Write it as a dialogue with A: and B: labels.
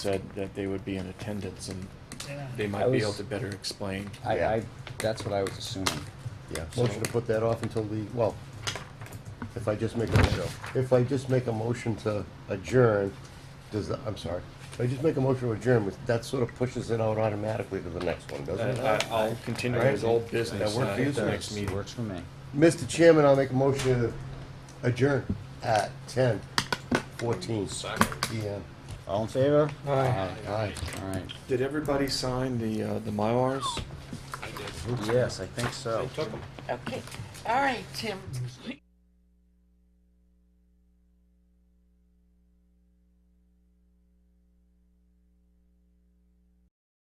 A: said that they would be in attendance and they
B: I
A: might be able
B: was-
A: to better explain.
B: I,
C: Yeah.
B: I, that's what I was assuming.
C: Yeah, motion to put that off until the, well, if I just make a, if I just make a motion to adjourn, does, the- I'm sorry, if I just make a motion to adjourn, that sort of pushes it out automatically to the next one, doesn't
B: Uh,
A: And
C: it?
A: Uh, I- I'll continue
C: Right.
A: his old business
C: That work
A: uh,
C: for you,
A: at the
C: sir?
A: next meeting.
B: Works for me.
C: Mr. Chairman, I'll make a motion to adjourn at ten fourteen PM.
B: All in favor? Aye.
C: Aye.
B: All right.
A: Did everybody sign the, uh, the Mylars?
B: Yes, I think so.
D: Okay, all right, Tim.